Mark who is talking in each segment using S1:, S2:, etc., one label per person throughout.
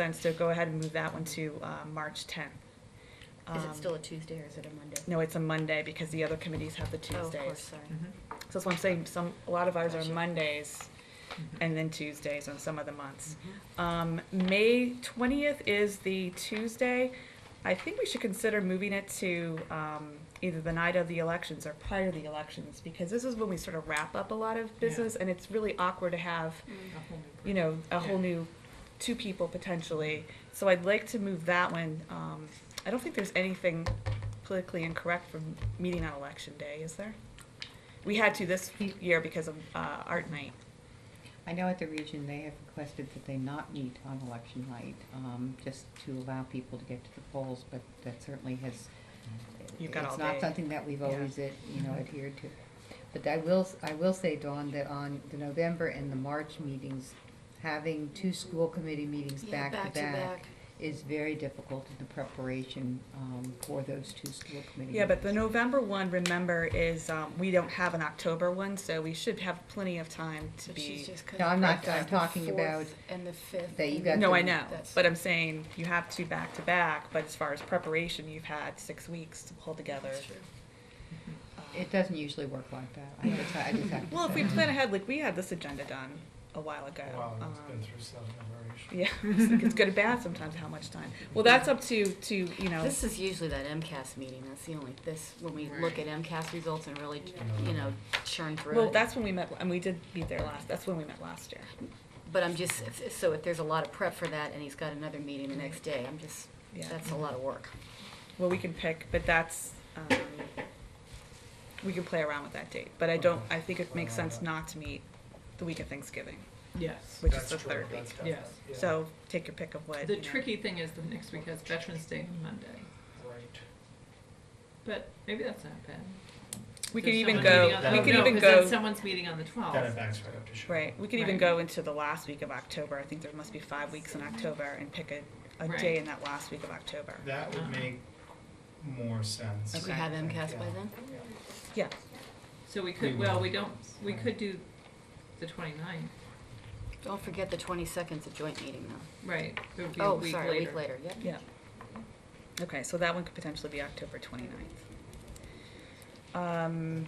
S1: then, so go ahead and move that one to uh, March 10th.
S2: Is
S1: Um,
S2: it still a Tuesday or is it a Monday?
S1: No, it's a Monday because the other committees have the
S2: Oh, of course,
S1: Tuesdays.
S2: sorry.
S1: So that's what I'm saying, some, a lot of ours are
S2: Gotcha.
S1: Mondays
S3: Mm-hmm.
S1: and then Tuesdays on some of the months.
S2: Mm-hmm.
S1: Um, May 20th is the Tuesday. I think we should consider moving it to um, either the night of the elections or prior to the elections because this is when we sort of wrap up a lot of business and it's really awkward to have
S2: Mm.
S3: Mm-hmm.
S1: you know, a whole new two people potentially. So I'd like to move that one. Um, I don't think there's anything politically incorrect from meeting on election day, is there? We had to this year because of uh, art night.
S4: Mm-hmm.
S5: I know at the region, they have requested that they not meet on election night, um, just to allow people to get to the polls, but that certainly has.
S1: You've got all
S5: It's
S1: day.
S5: not something that we've
S1: Yeah. Mm-hmm.
S5: always, eh, you know, adhered to. But I will, s- I will say, Dawn, that on the November and the March meetings, having two school committee meetings
S2: Yeah,
S5: back to back is very difficult in the preparation, um, for those two school committee meetings.
S1: Yeah, but the November one, remember, is um, we don't have an October one, so we should have plenty of time to
S4: So
S1: be.
S4: she's just
S5: No, I'm not-
S4: gonna
S5: I'm talking
S4: the
S5: about
S4: fourth And the fifth.
S5: that you
S4: and
S5: got
S1: No,
S5: the-
S1: I know,
S4: that's-
S1: but I'm saying you have two back to back. But as far as preparation, you've had six weeks to pull together.
S4: That's true.
S1: Um,
S5: It doesn't usually work like that, I just, I just have to
S1: Well, if we
S5: say.
S1: plan ahead, like we had this agenda done a while ago.
S6: Wow, it's
S1: um,
S6: been through seven generations.
S1: Yeah, it's like it's good and bad sometimes how much time. Well, that's up to, to, you know,
S2: This is usually that MCAS meeting, that's the only, this, when we look at MCAS results and really, you know, churn through it.
S1: well, that's when we met, and we did meet there last, that's when we met last year.
S2: But I'm just, if- so if there's a lot of prep for that and he's got another meeting the next day, I'm just,
S1: Yeah.
S2: that's a lot of work.
S1: Well, we can pick, but that's, um, we can play around with that date. But I don't, I think it makes sense not to meet the week of Thanksgiving,
S3: Yes.
S1: which is
S6: That's
S1: the
S6: true,
S1: third week.
S6: that's definite,
S3: Yes.
S6: yeah,
S1: So take your pick of what,
S3: The
S1: you know.
S3: tricky thing is the next week has Veterans Day on Monday,
S6: Right.
S3: but maybe that's not bad.
S1: We
S3: There's
S1: could even
S3: someone's
S1: go,
S3: meeting on-
S1: we
S3: oh,
S1: could
S3: no,
S1: even
S3: 'cause then
S1: go,
S3: Someone's meeting on the
S6: Then it
S3: twelfth.
S6: backs right up to Sharon.
S1: right, we could even
S3: Right.
S1: go into the last week of October. I think there must be five weeks in October and pick a, a day
S3: Right.
S1: in that last week of October.
S6: That would make more sense.
S2: Do we
S1: Okay.
S2: have MCAS by
S6: Yeah.
S2: then?
S1: Yeah,
S3: So we
S6: We
S3: could, well,
S6: will.
S3: we don't, we could do the 29th.
S2: Don't forget the twenty-second's a joint meeting though.
S3: right, it would be a
S2: Oh,
S3: week
S2: sorry, a week
S3: later.
S2: later, yep.
S1: yeah. Okay, so that one could potentially be October 29th. Um,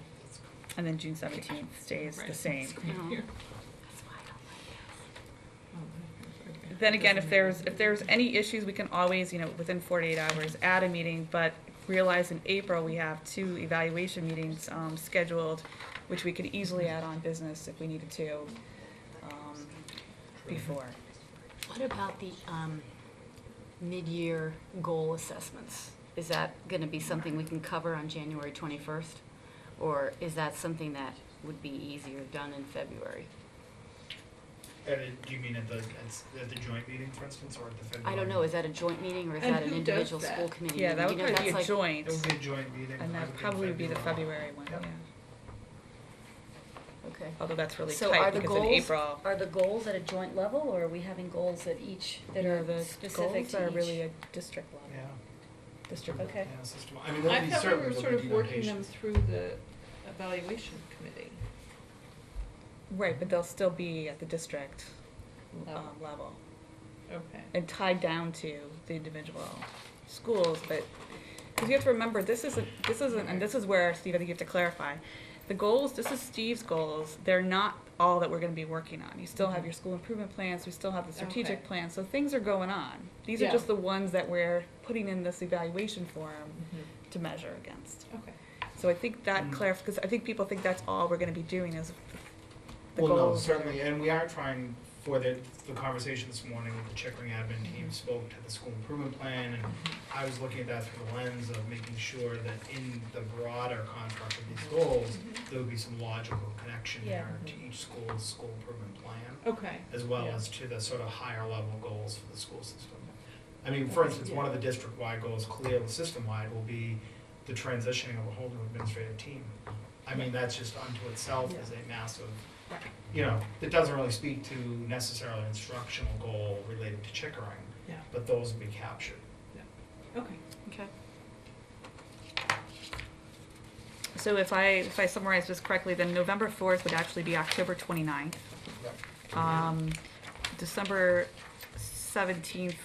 S1: and then June seventeenth stays the
S3: Right.
S1: same. Mm-hmm.
S2: Mhm.
S3: Here.
S2: That's why I don't
S3: Oh, okay.
S1: Then again, if
S3: Doesn't
S1: there's,
S3: matter.
S1: if there's any issues, we can always, you know, within forty-eight hours, add a meeting, but realize in April, we have two evaluation meetings, um, scheduled, which we could easily add on business if we needed to, um, before.
S2: What about the um, mid-year goal assessments? Is that going to be something we can cover on January 21st? Or is that something that would be easier done in February?
S6: And it- do you mean at the, at, at the joint meeting, for instance, or at the February?
S2: I don't know, is that a joint meeting or is
S3: And
S2: that an
S3: who does
S2: individual
S3: that?
S2: school committee?
S1: Yeah, that would
S2: meeting? You know,
S1: probably be a
S2: that's like-
S1: joint,
S6: It would be a joint meeting.
S1: and that
S6: in
S1: probably would be the February one, yeah.
S6: Yep.
S2: Okay.
S1: Although that's really
S2: So are
S1: tight
S2: the
S1: because in
S2: goals-
S1: April.
S2: Are the goals at a joint level or are we having goals at each, that
S1: No,
S2: are
S1: the
S2: specific
S1: Goals are
S2: to
S1: really
S2: each?
S1: a district level,
S6: Yeah.
S1: district.
S2: Okay.
S6: Yeah, system, I mean,
S3: I
S6: there'll be
S3: thought we
S6: certainly,
S3: were
S6: there'll
S3: sort
S6: be
S3: of working them
S6: demarcations.
S3: through the evaluation committee.
S1: Right, but they'll still be at the district um,
S3: Level.
S1: level
S3: Oh, Okay.
S1: and tied down to the individual schools, but, because you have to remember, this isn't, this isn't, and this is where, Steve, I think you have to clarify. The goals, this is Steve's goals, they're not all that we're gonna be working on. You still have your school improvement plans, we still have the strategic
S3: Okay.
S1: plan, so things are going on. These are
S3: Yeah.
S1: just the ones that we're putting in this evaluation form
S3: Mm-hmm.
S1: to measure against.
S3: Okay.
S1: So I think that
S6: Mm.
S1: clarifies, because I think people think that's all we're gonna be doing is the
S6: Well, no,
S1: goals. are-
S6: certainly, and we are trying, for the, the conversation this morning with the Chickering admin team spoke to the school improvement plan, and I was looking at that through the lens of making sure that in the broader construct of these goals,
S3: Mm-hmm.
S6: there would be some logical connection
S2: Yeah.
S6: there to each school's school improvement plan,
S3: Okay.
S6: as well
S3: Yeah.
S6: as to the sort of higher level goals for the school system. I mean, for instance, one of the district-wide goals, clearly system-wide, will be the transitioning of a whole new administrative team. I mean, that's just unto itself is a massive,
S3: Right.
S6: you know, that doesn't really speak to necessarily instructional goal related to chickering,
S3: Yeah.
S6: but those will be captured.
S3: Okay.
S2: Okay.
S1: So if I, if I summarize this correctly, then November fourth would actually be October twenty-ninth.
S6: Yep.
S1: Um, December seventeenth